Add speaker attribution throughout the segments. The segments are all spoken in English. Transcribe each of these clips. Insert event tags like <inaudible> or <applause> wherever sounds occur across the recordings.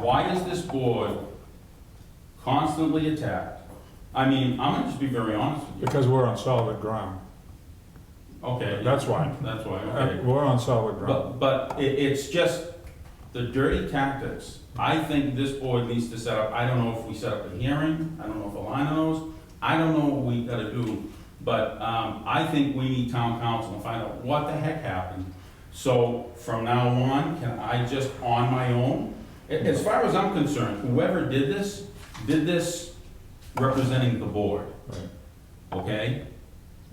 Speaker 1: why is this board constantly attacked? I mean, I'm gonna just be very honest with
Speaker 2: Because we're on solid ground.
Speaker 1: you. Okay.
Speaker 2: That's why.
Speaker 1: That's why,
Speaker 2: Uh,
Speaker 1: okay.
Speaker 2: We're on solid ground.
Speaker 1: But, but it, it's just the dirty tactics. I think this board needs to set up, I don't know if we set up a hearing, I don't know if Alana knows, I don't know what we gotta do. But, um, I think we need town council to find out what the heck happened. So from now on, can I just on my own? A- As far as I'm concerned, whoever did this, did this representing the board,
Speaker 2: Right.
Speaker 1: okay?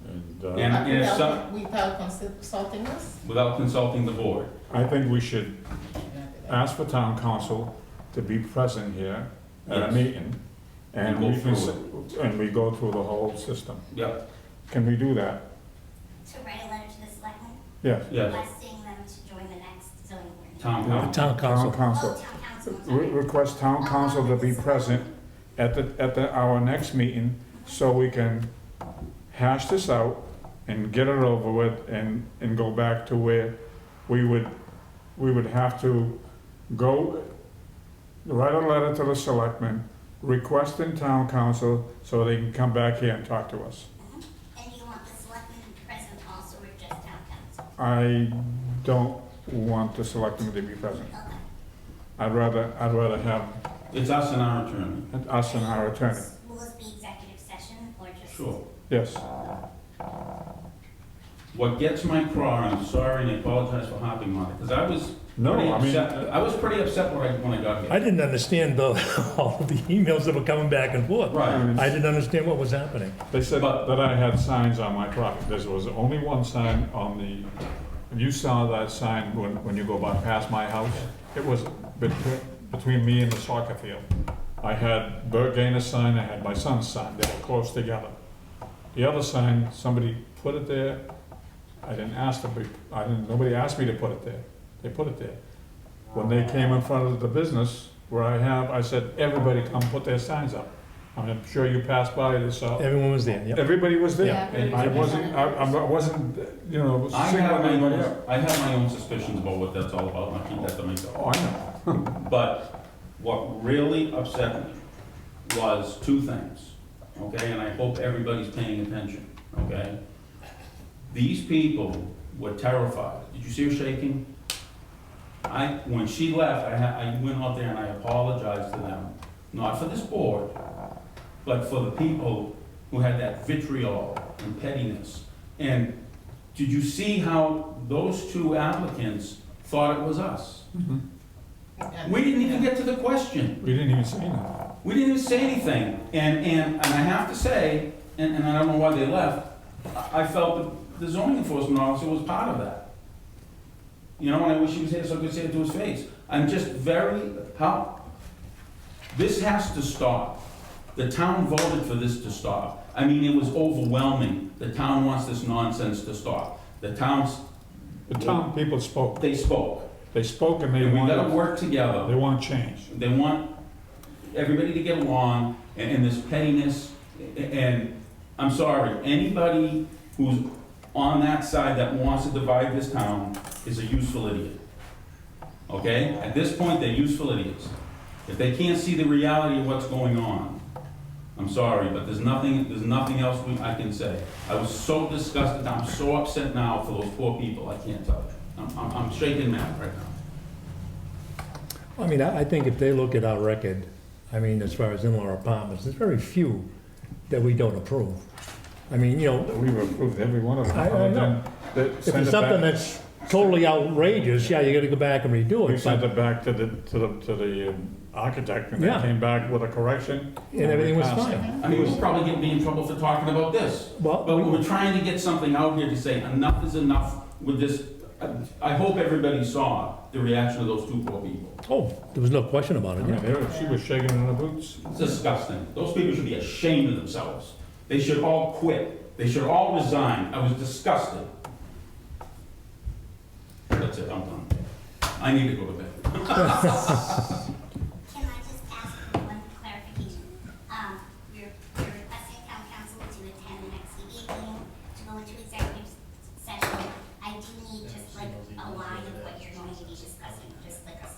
Speaker 2: And, uh,
Speaker 1: And- if some-
Speaker 3: Without, without consulting us?
Speaker 1: Without consulting the board.
Speaker 2: I think we should
Speaker 1: Uh,
Speaker 2: ask for town council to be present here at a
Speaker 1: Yes.
Speaker 2: meeting. And
Speaker 1: go
Speaker 2: we can,
Speaker 1: through
Speaker 2: s- and we go through the whole system.
Speaker 1: Yep,
Speaker 2: Can we do that?
Speaker 4: To write a letter to the selectmen
Speaker 2: Yes.
Speaker 1: yes,
Speaker 4: requesting them to join the next zoning board.
Speaker 1: town
Speaker 5: The
Speaker 1: council.
Speaker 5: town
Speaker 2: Town
Speaker 5: council.
Speaker 4: Oh,
Speaker 2: council.
Speaker 4: town council, I'm
Speaker 2: Re-
Speaker 4: sorry.
Speaker 2: Request town council to be present at the, at the, our next meeting, so we can hash this out and get it over with and, and go back to where we would, we would have to go, write a letter to the selectmen, request in town council, so they can come back here and talk to us.
Speaker 4: Mm-hmm. And you want the selectmen present also, or just town council?
Speaker 2: I don't want the selectmen to be present.
Speaker 4: Okay.
Speaker 2: I'd rather, I'd rather have
Speaker 1: It's us and our attorney.
Speaker 2: us and our attorney,
Speaker 4: Will this be executive session or just?
Speaker 1: Sure.
Speaker 2: yes.
Speaker 1: What gets my craw, and I'm sorry and I apologize for hopping on it, because I was
Speaker 2: No,
Speaker 1: pretty
Speaker 2: I mean-
Speaker 1: upset, I was pretty upset when I, when I got
Speaker 5: I
Speaker 1: here.
Speaker 5: didn't understand the, <laughs> all the emails that were coming back and forth.
Speaker 1: Right,
Speaker 5: I didn't understand what was happening.
Speaker 2: They said
Speaker 1: But-
Speaker 2: that I had signs on my property. There was only one sign on the, you saw that sign when, when you go by past my house. It was between, between me and the soccer field. I had Bert Gainer's sign, I had my son's sign. They were close together. The other sign, somebody put it there. I didn't ask to be, I didn't, nobody asked me to put it there. They put it there. When they came in front of the business where I have, I said, everybody come put their signs up. I'm sure you passed by this, uh,
Speaker 5: Everyone was there, yep.
Speaker 2: Everybody was there.
Speaker 5: Yeah.
Speaker 2: And I wasn't, I, I wasn't, you know,
Speaker 1: I have
Speaker 2: singling
Speaker 1: my
Speaker 2: anybody out.
Speaker 1: own, I have my own suspicions about what that's all about, and I keep that to myself.
Speaker 2: Oh, I know.
Speaker 1: But what really upset me was two things, okay, and I hope everybody's paying attention, okay? These people were terrified. Did you see her shaking? I, when she left, I, ha- I went out there and I apologized to them, not for this board, but for the people who had that vitriol and pettiness. And did you see how those two applicants thought it was us?
Speaker 5: Mm-hmm.
Speaker 1: We didn't even get to the question.
Speaker 2: We didn't even say that.
Speaker 1: We didn't even say anything. And, and, and I have to say, and, and I don't know why they left, I I felt that the zoning enforcement officer was part of that. You know, and I wish he was here so I could say it to his face. I'm just very, how, this has to stop. The town voted for this to stop. I mean, it was overwhelming. The town wants this nonsense to stop. The towns,
Speaker 2: The town people spoke.
Speaker 1: they spoke.
Speaker 2: They spoke and they
Speaker 1: And we gotta
Speaker 2: wanted,
Speaker 1: work together.
Speaker 2: they want change.
Speaker 1: They want everybody to get along and, and this pettiness, a- and I'm sorry, anybody who's on that side that wants to divide this town is a useful idiot. Okay? At this point, they're useful idiots. If they can't see the reality of what's going on, I'm sorry, but there's nothing, there's nothing else we- I can say. I was so disgusted, I'm so upset now for those poor people, I can't tell you. I'm, I'm I'm shaking mad right now.
Speaker 5: I mean, I, I think if they look at our record, I mean, as far as in-law apartments, there's very few that we don't approve. I mean, you know,
Speaker 2: We've approved every one of them.
Speaker 5: I- I
Speaker 2: other
Speaker 5: know.
Speaker 2: than they
Speaker 5: if
Speaker 2: sent
Speaker 5: it's
Speaker 2: it
Speaker 5: something
Speaker 2: back-
Speaker 5: that's totally outrageous, yeah, you gotta go back and redo
Speaker 2: We
Speaker 5: it.
Speaker 2: sent
Speaker 5: but-
Speaker 2: it back to the, to the, to the um, architect and they
Speaker 5: Yeah.
Speaker 2: came back with a correction.
Speaker 5: And everything
Speaker 2: we
Speaker 5: was
Speaker 2: passed it.
Speaker 5: fine.
Speaker 1: I mean, we'll probably get me in trouble for talking about this.
Speaker 5: Well,
Speaker 1: But we're trying to get something out here to say enough is enough with this. I hope everybody saw the reaction of those two poor people.
Speaker 5: oh, there was no question about
Speaker 2: I
Speaker 5: it,
Speaker 2: mean,
Speaker 5: yeah.
Speaker 2: they were- she was shaking in her boots.
Speaker 1: It's disgusting. Those people should be ashamed of themselves. They should all quit. They should all resign. I was disgusted. That's it, I'm done. I need to go to bed.
Speaker 4: Um,